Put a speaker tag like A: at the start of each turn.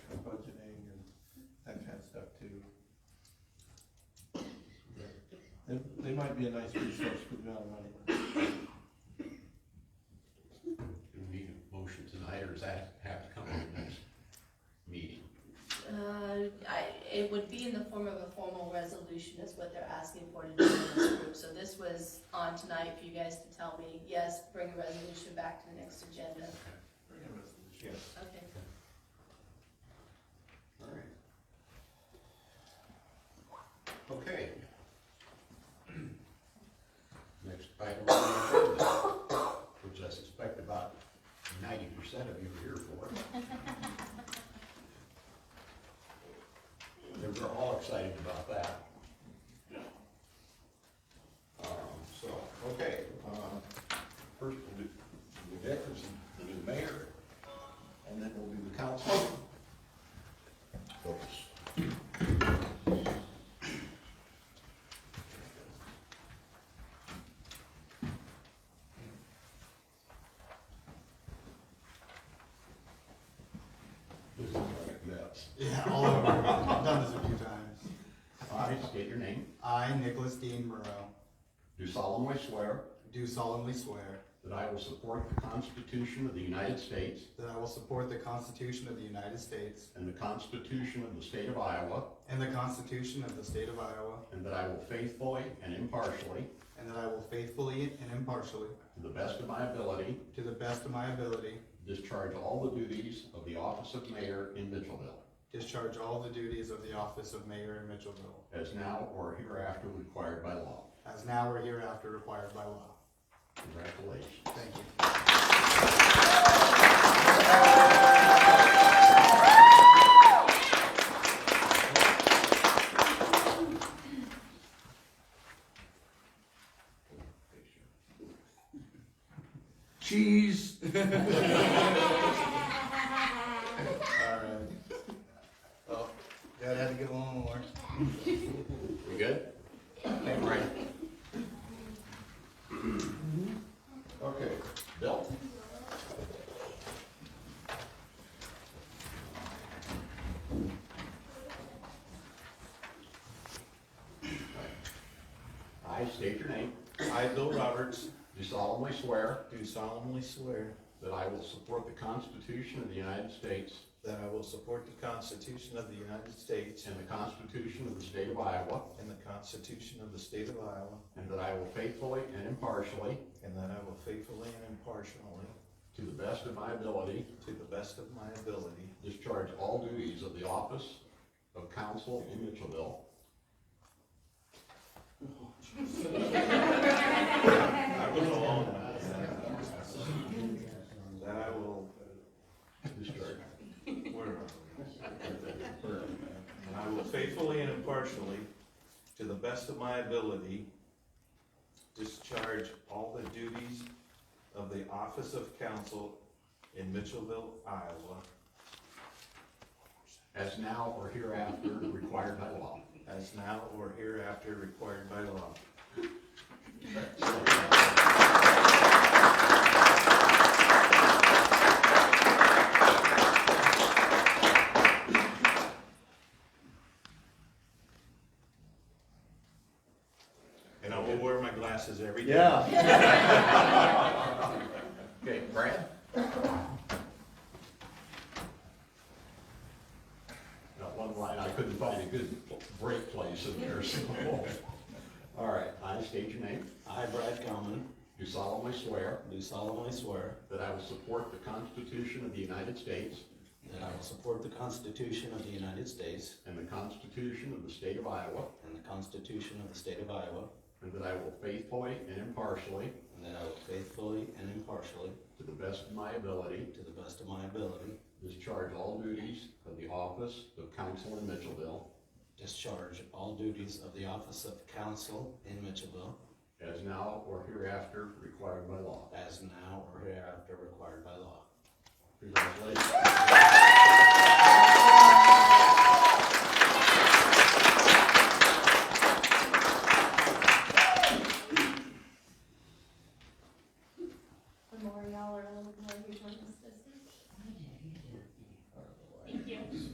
A: might be a nice resource for the amount of money.
B: Do we need a motion tonight, or does that have to come at the next meeting?
C: Uh, I, it would be in the form of a formal resolution is what they're asking for to do in this group. So this was on tonight for you guys to tell me, yes, bring a resolution back to the next agenda. Okay.
B: Alright. Okay. Next item on the agenda, which I suspect about ninety percent of you are here for. They were all excited about that. Um, so, okay, um, first we'll do the deputy, the new mayor, and then we'll do the council. Folks.
D: Yeah, all over. I've done this a few times.
B: I state your name.
D: I, Nicholas Dean Murrow,
B: Do solemnly swear
D: do solemnly swear
B: that I will support the Constitution of the United States
D: that I will support the Constitution of the United States
B: and the Constitution of the State of Iowa,
D: and the Constitution of the State of Iowa,
B: and that I will faithfully and impartially,
D: and that I will faithfully and impartially,
B: to the best of my ability,
D: to the best of my ability,
B: discharge all the duties of the office of mayor in Mitchellville,
D: discharge all the duties of the office of mayor in Mitchellville,
B: as now or hereafter required by law.
D: as now or hereafter required by law.
B: Congratulations.
D: Thank you.
E: Cheese.
D: All right. Oh, God, I had to get one more.
B: We good? Okay, great. Okay, Bill? I state your name,
D: I, Bill Roberts,
B: do solemnly swear
D: do solemnly swear
B: that I will support the Constitution of the United States
D: That I will support the Constitution of the United States
B: and the Constitution of the State of Iowa,
D: and the Constitution of the State of Iowa,
B: and that I will faithfully and impartially,
D: and that I will faithfully and impartially,
B: to the best of my ability,
D: to the best of my ability,
B: Discharge all duties of the office of council in Mitchellville.
D: that I will,
B: Discharge.
D: where am I? And I will faithfully and impartially, to the best of my ability, discharge all the duties of the office of council in Mitchellville, Iowa,
B: As now or hereafter required by law.
D: as now or hereafter required by law. And I will wear my glasses every day.
A: Yeah.
B: Okay, Brad? Got one line, I couldn't find a good break place in there, so. All right, I state your name.
F: I, Brad Gellman,
B: Do solemnly swear
F: do solemnly swear
B: that I will support the Constitution of the United States
F: that I will support the Constitution of the United States
B: and the Constitution of the State of Iowa,
F: and the Constitution of the State of Iowa,
B: and that I will faithfully and impartially,
F: and that I will faithfully and impartially,
B: to the best of my ability,
F: to the best of my ability,
B: Discharge all duties of the office of council in Mitchellville
F: discharge all duties of the office of council in Mitchellville
B: as now or hereafter required by law.
F: as now or hereafter required by law.
B: Congratulations.